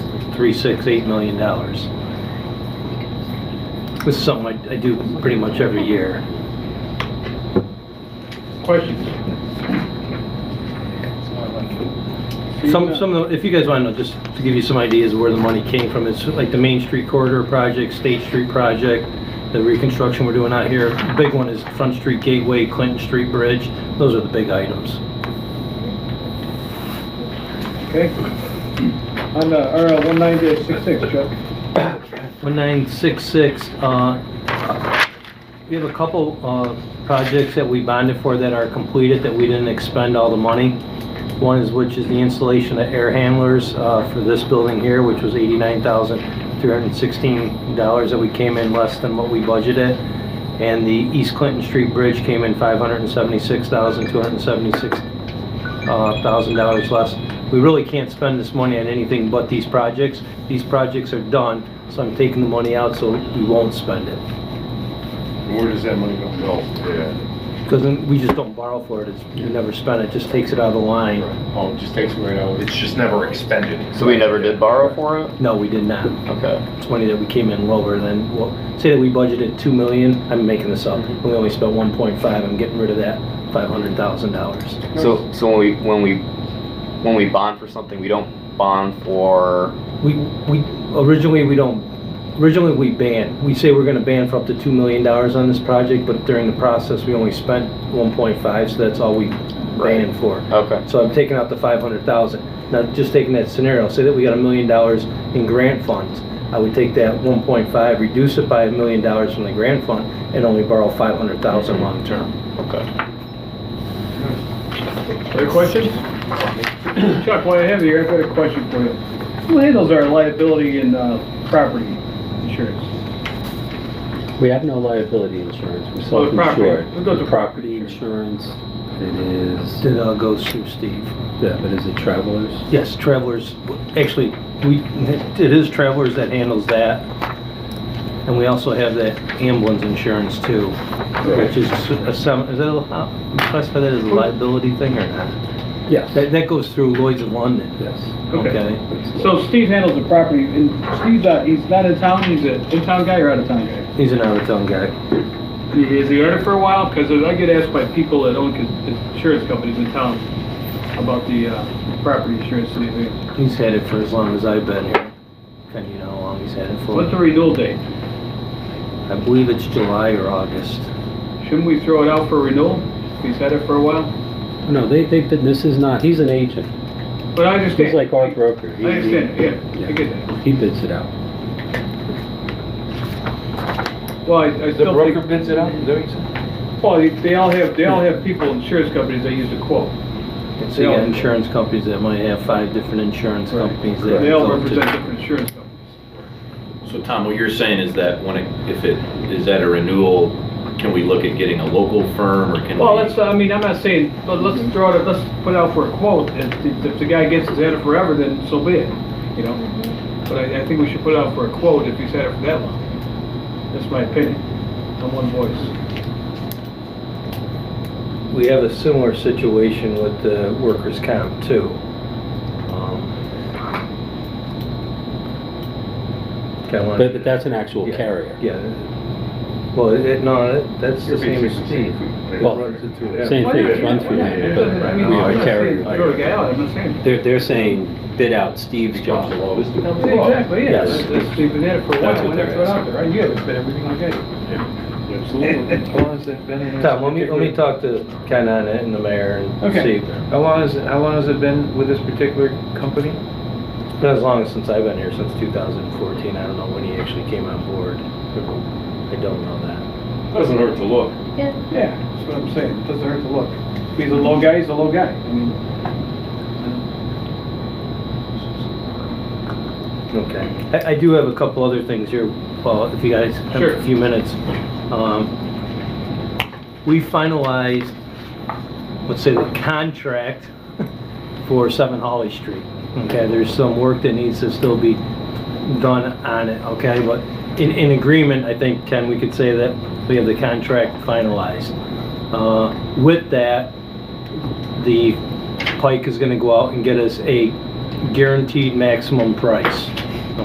three six eight million dollars. This is something I, I do pretty much every year. Questions? Some, some of the, if you guys want to know, just to give you some ideas of where the money came from, it's like the Main Street Corridor Project, State Street Project, the reconstruction we're doing out here. The Big one is Front Street Gateway, Clinton Street Bridge. Those are the big items. Okay. On the RL one nine dash six six, Chuck. 1966, uh, we have a couple uh, projects that we bonded for that are completed that we didn't expend all the money. One is, which is the installation of air handlers uh, for this building here, which was $89,316 that we came in less than what we budgeted. And the East Clinton Street Bridge came in $576,276 uh, $1,000 less. We really can't spend this money on anything but these projects. These projects are done, so I'm taking the money out so we won't spend it. Where does that money go? No, yeah, Because we just don't borrow for it, it's, we never spend it, just takes it out of the line. Oh, it just takes it right out. it's just never expended. So we never did borrow for it? No, we did not. Okay. It's money that we came in lower than, well, say that we budgeted 2 million, I'm making this up, and we only spent 1.5, I'm getting rid of that $500,000. So, so when we, when we, when we bond for something, we don't bond for, We, we, originally, we don't, originally, we banned, we say we're gonna ban for up to two million dollars on this project, but during the process, we only spent one point five, so that's all we banned for. okay. So I'm taking out the five hundred thousand. Now, just taking that scenario, say that we got a million dollars in grant funds. I would take that one point five, reduce it by a million dollars from the grant fund, and only borrow five hundred thousand long-term. Okay. Other questions? Chuck, while I have you here, I've got a question for you. Who handles our liability and, uh, property insurance? We have no liability insurance, we're Well, the property. self-insured. We'll go to The Property insurance, it is, Then I'll go through Steve. yeah, but is it travelers? Yes, Travelers, actually, we, it is Travelers that handles that. And we also have that ambulance insurance too, which is a some, is that, a- how- classify that as a liability thing or not? Yes. That, that goes through Lloyd's of London, Yes. okay? So Steve handles the property, and Steve's, uh, he's not in town, he's an in-town guy or out-of-town guy? He's an out-of-town guy. Is he on it for a while? Because I get asked by people that own cons- insurance companies in town about the, uh, property insurance and everything. He's had it for as long as I've been here. And you know how long he's had it What's the for. renewal date? I believe it's July or August. Shouldn't we throw it out for renewal? He's had it for a while? No, they, they've been, this is not, he's an agent, But I understand. he's like our broker. I understand, yeah, I get that. He bids it out. Well, I, I The still broker think, bids it out, is that what you said? well, they- they all have, they all have people, insurance companies that use a quote. It's the insurance companies that might have five different insurance Right. companies that They all go to- represent different insurance companies. So Tom, what you're saying is that when it, if it is at a renewal, can we look at getting a local firm or can we? Well, let's, I mean, I'm not saying, but let's throw it, let's put it out for a quote, and if, if the guy gets, has had it forever, then so be it, you know? But I, I think we should put it out for a quote if he's had it for that long. That's my opinion, on one voice. We have a similar situation with the workers' comp too. Um, But, but that's an actual Yeah. carrier. Yeah. Well, it, no, it- that's the same as Steve. Well, Same thing, it's run through. Yeah, yeah, yeah. I mean, Yeah, I'm not saying carrier. throw the guy out, I'm not saying. They're, they're saying bid out Steve's job. Exactly, yeah, Yes. that's, that's, they've been at it for a That's while, what when they they're throw it out asking. there, I get it, but everything I get. Absolutely. How long has that been? in- Tom, let me, let me talk to Ken on it and the mayor and Okay. see. How long has, how long has it been with this particular company? Been as long as since I've been here, since 2014. I don't know when he actually came on board. I don't know that. Doesn't hurt to look. Yeah, that's what I'm saying, it doesn't hurt to look. If he's a low guy, he's a low guy, I mean. Okay. I, I do have a couple other things here, Paul, if you guys have Sure. a few minutes. Um, We finalized, let's say, the contract for Seven Holly Street. Okay, there's some work that needs to still be done on it, okay? But in, in agreement, I think, Ken, we could say that we have the contract finalized. Uh, With that, the Pike is gonna go out and get us a guaranteed maximum price